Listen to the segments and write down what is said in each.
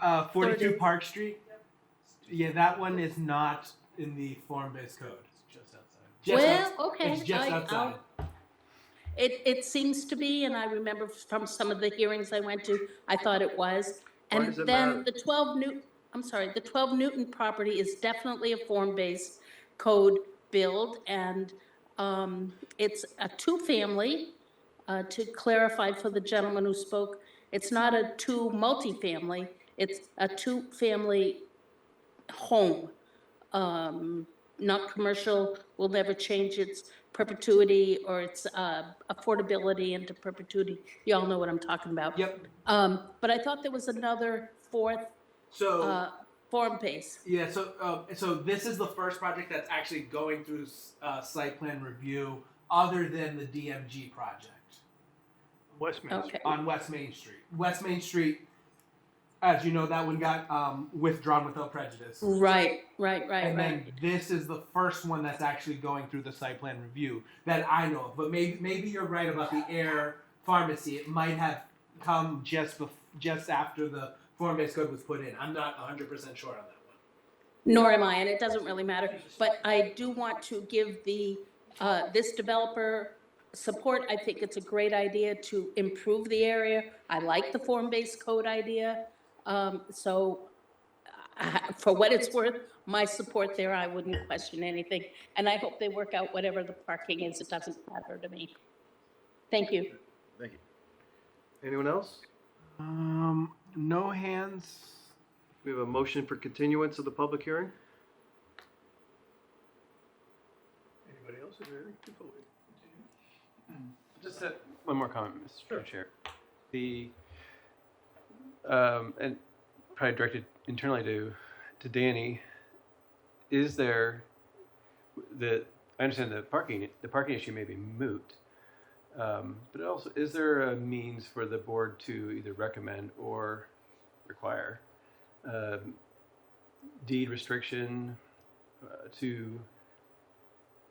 Uh, 42 Thirty. Park Street. Yeah, that one is not in the form-based code. It's just outside. Just Well, outs- okay. It's just I- I'll- outside. It, it seems to be, and I remember from some of the hearings I went to, I thought it was. Why And does it then matter? the 12 Newton, I'm sorry, the 12 Newton property is definitely a form-based code build, and um, it's a two-family, uh, to clarify for the gentleman who spoke, it's not a two multifamily, it's a two-family home. Um, not commercial, will never change its perpetuity or its uh, affordability into perpetuity. You all know what I'm talking about. Yep. Um, But I thought there was another fourth So uh, form base. yeah, so uh, so this is the first project that's actually going through uh, site plan review, other than the DMG project Westminster. Okay, on West Main Street. West Main Street, as you know, that one got um, withdrawn without prejudice. right, right, right, And right. then this is the first one that's actually going through the site plan review that I know of. But maybe maybe you're right about the air pharmacy. It might have come just bef- just after the form based code was put in. I'm not 100 percent sure on that one. Nor am I, and it doesn't really matter. But I do want to give the, uh, this developer support. I think it's a great idea to improve the area. I like the form-based code idea. Um, So I- for what it's worth, my support there, I wouldn't question anything. And I hope they work out whatever the parking is. It doesn't matter to me. Thank you. Thank you. Anyone else? Um, no hands. We have a motion for continuance of the public hearing? Anybody else? Just a, one more comment, Mr. Chair. The, um, and probably directed internally to, to Danny, is there, the, I understand the parking, the parking issue may be moot. Um, but also, is there a means for the board to either recommend or require, um, deed restriction uh, to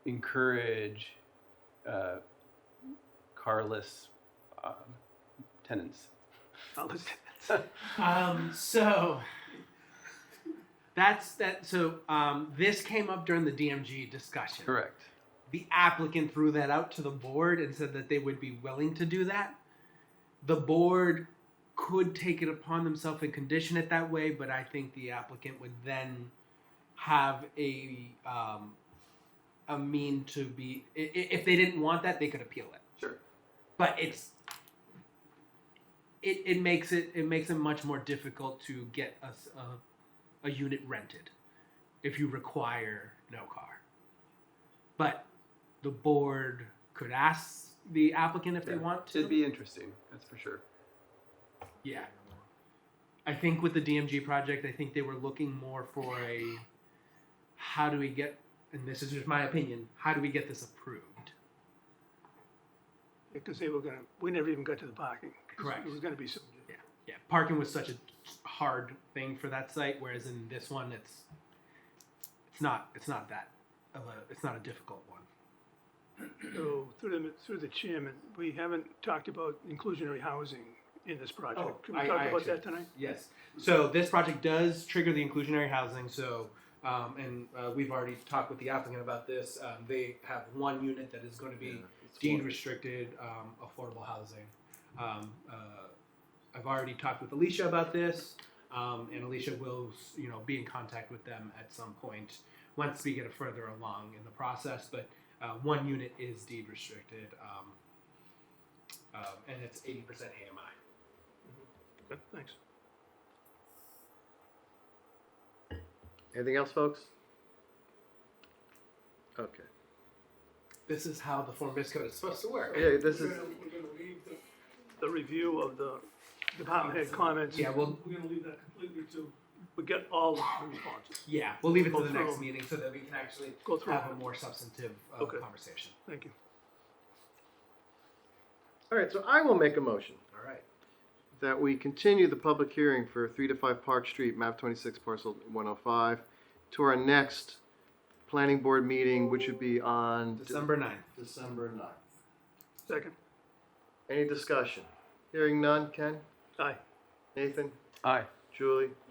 encourage, uh, carless um, tenants. Carless tenants. Um, so that's that. So um, this came up during the DMG discussion. Correct. the applicant threw that out to the board and said that they would be willing to do that. The board could take it upon themselves and condition it that way, but I think the applicant would then have a um, a mean to be i- i- if they didn't want that, they could appeal it. Sure. But it's it, it makes it it makes it much more difficult to get a, s- a- a unit rented if you require no car. But the board could ask the applicant if they Yeah. want to. It'd be interesting, that's for sure. yeah. I think with the DMG project, I think they were looking more for a how do we get, and this is just my opinion, how do we get this approved? Because they were gonna, we never even got to the parking. 'cause Correct. It was gonna be some, Yeah, parking was such a hard thing for that site, whereas in this one, it's it's not it's not that of a, it's not a difficult one. so through the, through the chairman, we haven't talked about inclusionary housing in this Oh, project. Can I- we talk I about actually- that tonight? Yes. So this project does trigger the inclusionary housing. So, um, and uh, we've already talked with the applicant about this. Um, they have one unit that is going to be deed restricted um, affordable housing. Um, uh, I've already talked with Alicia about this, um, and Alicia will, you know, be in contact with them at some point once we get further along in the process. But uh, one unit is deed restricted, um, um, and it's eighty percent AMI. Good, Thanks. Anything else, folks? Okay. this is how the form based code is supposed to work. Yeah, this is, We're gonna leave the. The review of the department head comments. Yeah, we'll- We're gonna leave that completely to, we get all the responses. Yeah, we'll leave it to Go the next through. meeting so that we can actually Go through. have a more substantive uh, Okay. conversation. Thank you. all right, so I will make a motion All right. that we continue the public hearing for three to five Park Street, map twenty-six, parcel one oh five, to our next planning board meeting, which would be on. December 9th. December ninth. Second, Any discussion? Hearing none, Ken? aye. Nathan? Aye. Julie?